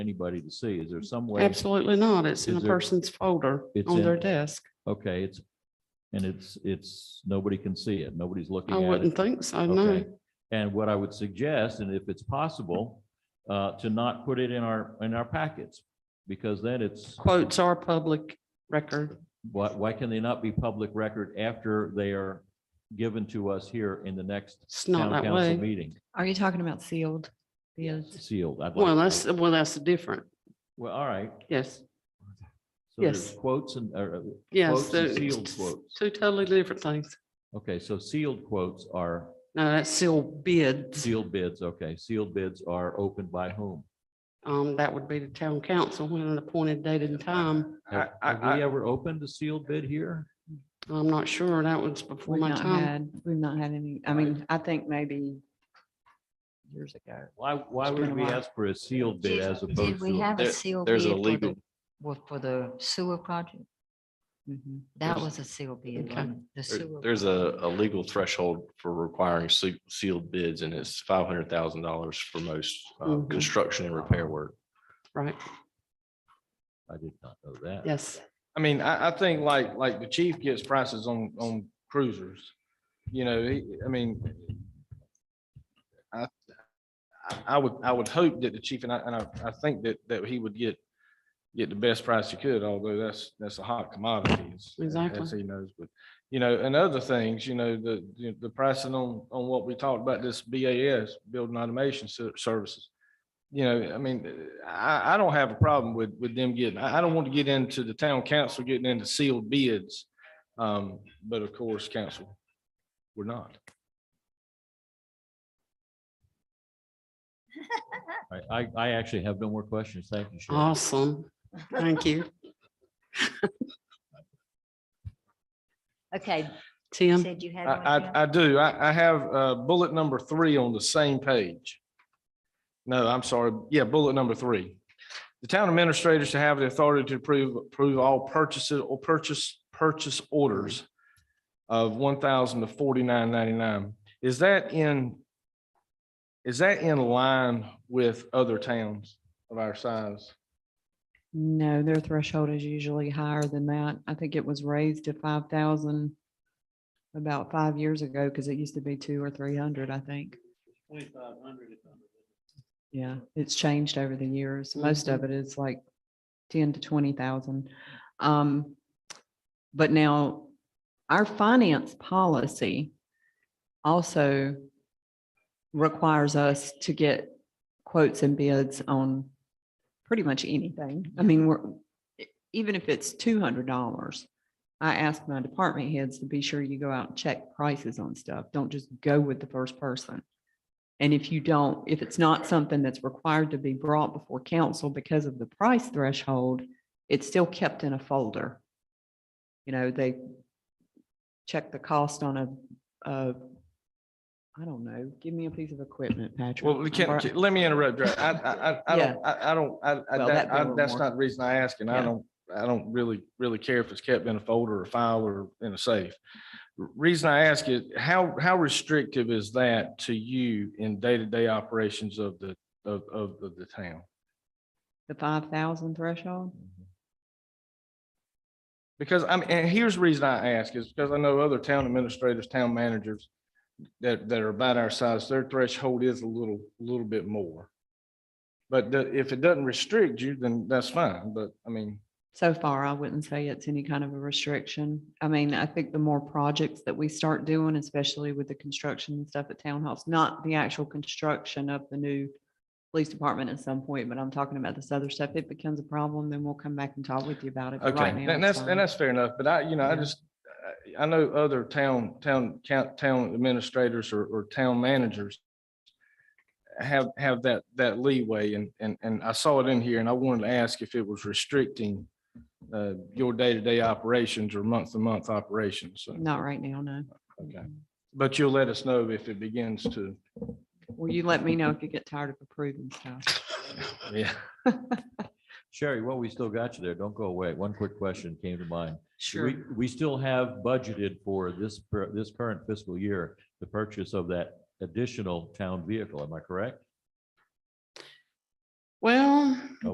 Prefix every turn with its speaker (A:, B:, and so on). A: anybody to see. Is there some way?
B: Absolutely not. It's in a
A: Is there-
B: person's folder
A: It's
B: on their
A: in-
B: desk.
A: Okay, it's, and it's, it's, nobody can see it. Nobody's looking
B: I
A: at it.
B: wouldn't think so, no.
A: Okay. And what I would suggest, and if it's possible, uh, to not put it in our, in our packets, because then it's,
B: Quotes are public record.
A: why, why can they not be public record after they are given to us here in the next
B: It's
A: town
B: not that
A: council
B: way.
A: meeting?
C: Are you talking about sealed? Sealed.
A: Sealed. I'd like-
B: Well, that's, well, that's different.
A: Well, all right.
B: Yes,
A: So there's
B: Yes.
A: quotes and, or, uh,
B: yes.
A: Quotes and
B: the-
A: sealed quotes.
B: Two totally different things.
A: okay, so sealed quotes are
B: No, that's sealed bids.
A: sealed bids. Okay, sealed bids are opened by whom?
B: Um, that would be the town council when an appointed date and time. I,
A: Have have
B: I,
A: we
B: I,
A: ever opened a sealed bid here?
B: I'm not sure. That was before
C: We've
B: my
C: not
B: time.
C: had, we've not had any, I mean, I think maybe years ago.
A: Why, why
C: It's
A: would
C: been a
A: we
C: while.
A: ask for a sealed bid
D: Did-
A: as opposed
D: Did we
A: to?
D: have a
E: There-
D: sealed bid
E: there's a
D: for the,
E: legal-
D: wa- for the sewer project?
C: Mhm.
D: That
E: There's-
D: was a sealed bid,
B: Okay.
D: wasn't it? the
E: There-
D: sewer.
E: There's a, a legal threshold for requiring se- sealed bids and it's five hundred thousand dollars for most uh,
B: Mhm.
E: construction and repair work.
B: Right,
A: I did not know that.
B: yes.
F: I mean, I, I think like, like the chief gets prices on, on cruisers. You know, he, I mean, I, I- I would, I would hope that the chief and I, and I, I think that, that he would get, get the best price he could, although that's, that's a hot commodity. as-
B: Exactly.
F: As he knows, but, you know, and other things, you know, the, the- the pricing on, on what we talked about, this BAS, Building Automation Ser- Services you know, I mean, I, I don't have a problem with, with them getting, I, I don't want to get into the town council getting into sealed bids. Um, but of course, council, we're not.
A: I, I, I actually have no more questions. Thank you,
B: Uh-huh.
A: Sharon.
B: Awesome. Thank you.
D: Okay, you
B: Tim,
D: said you
F: Um, I,
D: had. one, Jim?
F: I, I do. I, I have, uh, bullet number three on the same page. No, I'm sorry. Yeah, bullet number three. The town administrators to have the authority to approve, approve all purchases or purchase, purchase orders of one thousand to forty-nine ninety-nine. Is that in, is that in line with other towns of our size?
C: No, their threshold is usually higher than that. I think it was raised to five thousand about five years ago because it used to be two or three hundred, I think. Yeah, it's changed over the years. Most of it is like ten to twenty thousand. Um, but now our finance policy also requires us to get quotes and bids on pretty much anything. I mean, we're, e- even if it's two hundred dollars, I ask my department heads to be sure you go out and check prices on stuff. Don't just go with the first person. And if you don't, if it's not something that's required to be brought before council because of the price threshold, it's still kept in a folder. You know, they check the cost on a, a, I don't know, give me a piece of equipment, Patrick.
F: Well, we
C: Or-
F: can't, let me interrupt. Dre. I, I, I, I
C: Yeah.
F: don't, I, I don't, I- I,
C: Well, that'd
F: that-
C: be a
F: I-
C: little
F: that's
C: more.
F: not the reason I ask, and I
C: Yeah.
F: don't, I don't really, really care if it's kept in a folder or file or in a safe. R- Reason I ask is, how, how restrictive is that to you in day-to-day operations of the, of, of, of the town?
C: The five thousand threshold?
F: Because I'm, and here's the reason I ask is because I know other town administrators, town managers that, that are about our size, their threshold is a little, little bit more. But the- if it doesn't restrict you, then that's fine. But I mean,
C: So far, I wouldn't say it's any kind of a restriction. I mean, I think the more projects that we start doing, especially with the construction and stuff at Town House, not the actual construction of the new police department at some point, but I'm talking about this other stuff, it becomes a problem, then we'll come back and talk with you about it. But
F: okay,
C: right now, it's
F: and that's, and
C: fine.
F: that's fair enough. But I, you know, I
C: Yeah.
F: just, I I know other town, town, count, town administrators or, or town managers have, have that, that leeway and, and, and I saw it in here and I wanted to ask if it was restricting uh, your day-to-day operations or month-to-month operations. So,
C: Not right now, no.
F: okay. But you'll let us know if it begins to,
C: Will you let me know if you get tired of approving stuff?
F: yeah.
A: Sherry, while we still got you there, don't go away. One quick question came to mind.
C: Sure.
A: We, we still have budgeted for this, per- this current fiscal year, the purchase of that additional town vehicle. Am I correct?
B: well,